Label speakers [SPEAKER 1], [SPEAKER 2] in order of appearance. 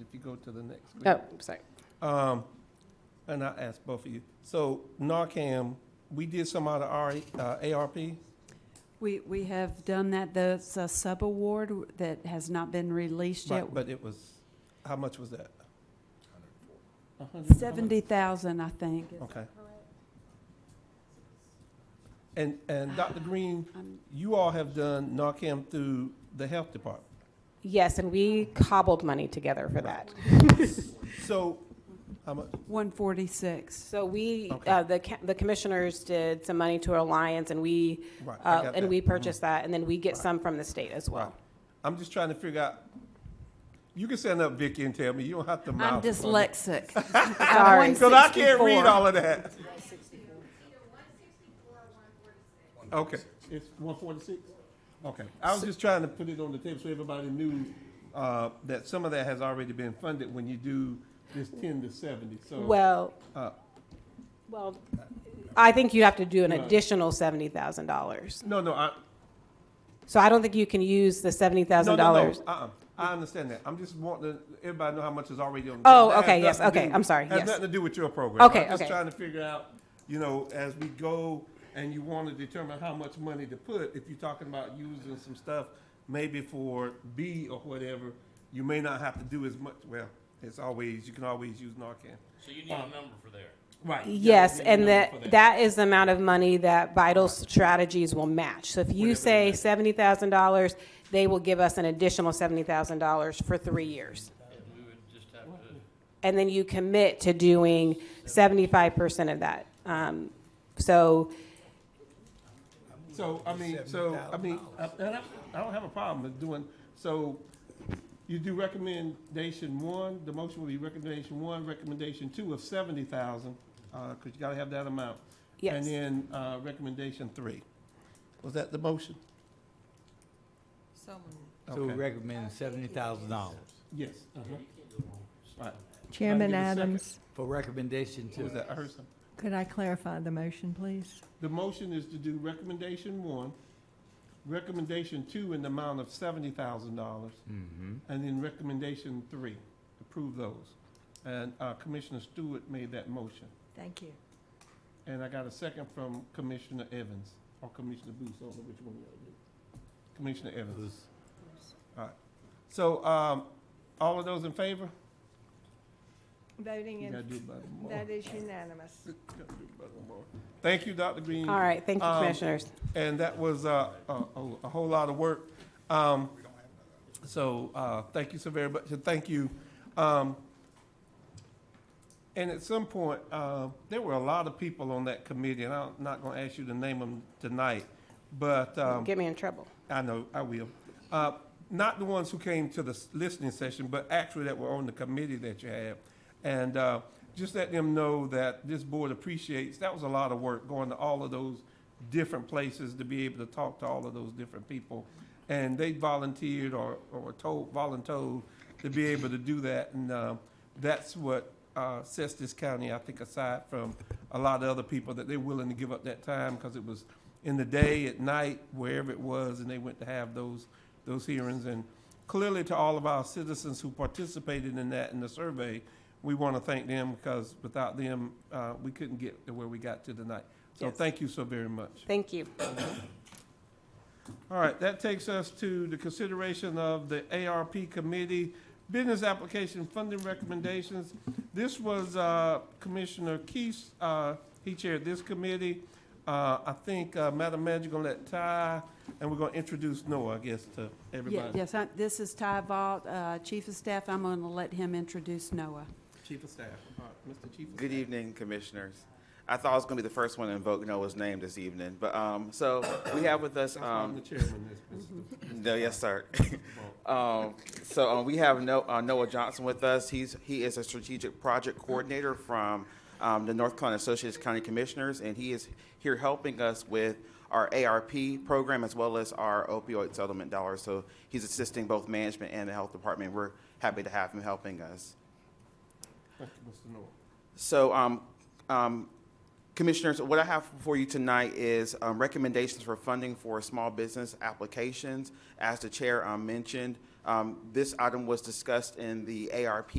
[SPEAKER 1] if you go to the next. clip.
[SPEAKER 2] Oh, sorry.
[SPEAKER 1] Um, and I asked both of you. So Narcan, we did some out of our, uh, ARP.
[SPEAKER 3] We, we have done that, that's a sub-award that has not been released yet.
[SPEAKER 1] But, but it was, how much was that? A hundred- how much?
[SPEAKER 3] Seventy thousand, I think.
[SPEAKER 1] Okay. And, and Dr.
[SPEAKER 2] Ah,
[SPEAKER 1] Green,
[SPEAKER 3] Um,
[SPEAKER 1] you all have done Narcan through the health department.
[SPEAKER 2] Yes, and we cobbled money together for that.
[SPEAKER 1] So, how much?
[SPEAKER 3] One forty-six.
[SPEAKER 2] So we,
[SPEAKER 1] Okay.
[SPEAKER 2] uh, the ca- the commissioners did some money to Alliance, and we,
[SPEAKER 1] Right, I
[SPEAKER 2] uh,
[SPEAKER 1] got
[SPEAKER 2] and
[SPEAKER 1] that. Mm-hmm.
[SPEAKER 2] we purchased that, and then we get
[SPEAKER 1] Right.
[SPEAKER 2] some from the state as
[SPEAKER 1] Right.
[SPEAKER 2] well.
[SPEAKER 1] I'm just trying to figure out, you can send up Vicky and tell me, you don't have to
[SPEAKER 3] I'm
[SPEAKER 1] mouth. it for me.
[SPEAKER 3] dyslexic.
[SPEAKER 2] Sorry.
[SPEAKER 1] Cause I can't read
[SPEAKER 3] 164.
[SPEAKER 1] all of that. Okay. It's one forty-six? Okay, I was just trying to put it on the table so everybody knew, uh, that some of that has already been funded when you do this ten to seventy, so.
[SPEAKER 2] Well,
[SPEAKER 1] Uh,
[SPEAKER 2] well, I think you have to do an
[SPEAKER 1] Right.
[SPEAKER 2] additional seventy thousand dollars.
[SPEAKER 1] No, no, I,
[SPEAKER 2] So I don't think you can use the seventy
[SPEAKER 1] no, no,
[SPEAKER 2] thousand
[SPEAKER 1] no,
[SPEAKER 2] dollars.
[SPEAKER 1] uh-uh, I understand that, I'm just wanting to, everybody know how much is already on. the table.
[SPEAKER 2] Oh,
[SPEAKER 1] That
[SPEAKER 2] okay,
[SPEAKER 1] has
[SPEAKER 2] yes,
[SPEAKER 1] nothing to
[SPEAKER 2] okay,
[SPEAKER 1] do-
[SPEAKER 2] I'm sorry,
[SPEAKER 1] Has
[SPEAKER 2] yes.
[SPEAKER 1] nothing to do with your program.
[SPEAKER 2] Okay,
[SPEAKER 1] I'm just
[SPEAKER 2] okay.
[SPEAKER 1] trying to figure out, you know, as we go and you want to determine how much money to put, if you're talking about using some stuff maybe for B or whatever, you may not have to do as much, well, it's always, you can always use Narcan.
[SPEAKER 4] So you need a number for there.
[SPEAKER 1] Right.
[SPEAKER 2] Yes, and that, that is the amount of money that Vital Strategies will match. So if
[SPEAKER 1] Whatever
[SPEAKER 2] you
[SPEAKER 1] it
[SPEAKER 2] say
[SPEAKER 1] is.
[SPEAKER 2] seventy thousand dollars, they will give us an additional seventy thousand dollars for three years.
[SPEAKER 4] And we would just have to,
[SPEAKER 2] And then you commit to doing seventy-five percent of that. Um, so,
[SPEAKER 1] So, I mean, so, I mean, uh, and I, I don't have a problem with doing, so you do recommendation one, the motion will be recommendation one, recommendation two of seventy thousand, uh, cause you gotta have that amount. And
[SPEAKER 2] yes,
[SPEAKER 1] then, uh, recommendation three. Was that the motion?
[SPEAKER 5] So we
[SPEAKER 1] Okay.
[SPEAKER 5] recommend seventy thousand dollars
[SPEAKER 1] Yes, uh-huh. Right,
[SPEAKER 6] Chairman
[SPEAKER 1] Give it a second.
[SPEAKER 6] Adams,
[SPEAKER 5] for recommendation
[SPEAKER 1] what was
[SPEAKER 5] to,
[SPEAKER 1] that, I heard something.
[SPEAKER 6] could I clarify the motion, please?
[SPEAKER 1] The motion is to do recommendation one, recommendation two in the amount of seventy thousand dollars,
[SPEAKER 5] Mm-hmm.
[SPEAKER 1] and then recommendation three, approve those. And uh, Commissioner Stewart made that motion,
[SPEAKER 6] Thank you.
[SPEAKER 1] and I got a second from Commissioner Evans, or Commissioner Booth, I don't know which one you all did. Commissioner Evans. All right, so, um, all of those in favor?
[SPEAKER 6] Voting
[SPEAKER 1] You gotta do
[SPEAKER 6] in,
[SPEAKER 1] it by tomorrow.
[SPEAKER 6] that is unanimous.
[SPEAKER 1] You gotta do it by tomorrow. Thank you, Dr. Green.
[SPEAKER 2] all right, thank you,
[SPEAKER 1] Um,
[SPEAKER 2] commissioners.
[SPEAKER 1] And that was uh, a, a, a whole lot of work. Um, so, uh, thank you so very much, and thank you. Um, and at some point, uh, there were a lot of people on that committee, and I'm not gonna ask you to name them tonight, but, um,
[SPEAKER 2] Get me in trouble.
[SPEAKER 1] I know, I will. Uh, Not the ones who came to the s- listening session, but actually that were on the committee that you had. And uh, just let them know that this board appreciates, that was a lot of work, going to all of those different places to be able to talk to all of those different people. And they volunteered or, or told, voluntold to be able to do that. And uh, that's what uh, sets this county, I think, aside from a lot of other people, that they're willing to give up that time because it was in the day, at night, wherever it was, and they went to have those, those hearings. And clearly to all of our citizens who participated in that in the survey, we want to thank them because without them, uh, we couldn't get to where we got to tonight. So
[SPEAKER 2] Yes.
[SPEAKER 1] thank you so very much.
[SPEAKER 2] Thank you.
[SPEAKER 1] All right, that takes us to the consideration of the ARP Committee Business Application Funding Recommendations. This was uh, Commissioner Keith, uh, he chaired this committee. Uh, I think, uh, Madam Manager, you're gonna let Ty, and we're gonna introduce Noah, I guess, to
[SPEAKER 3] Yeah,
[SPEAKER 1] everybody.
[SPEAKER 3] Yes, I- this is Ty Vaught, uh, Chief of Staff. I'm going to let him introduce Noah.
[SPEAKER 1] Chief of Staff, all right, Mr. Chief of
[SPEAKER 7] Good
[SPEAKER 1] Staff.
[SPEAKER 7] evening, Commissioners. I thought I was going to be the first one to invoke Noah's name this evening, but, um, so we have with us,
[SPEAKER 1] That's why I'm the
[SPEAKER 7] um,
[SPEAKER 1] chairman of this.
[SPEAKER 7] no, yes, sir. Um, so, um, we have No, uh, Noah Johnson with us. He's, he is a strategic project coordinator from, um, the North Carolina Associates County Commissioners, and he is here helping us with our ARP program as well as our opioid settlement dollars. So he's assisting both management and the health department. We're happy to have him helping us.
[SPEAKER 1] Thank you, Mr. Noah.
[SPEAKER 7] So, um, um, Commissioners, what I have for you tonight is um, recommendations for funding for small business applications. As the Chair um, mentioned, um, this item was discussed in the ARP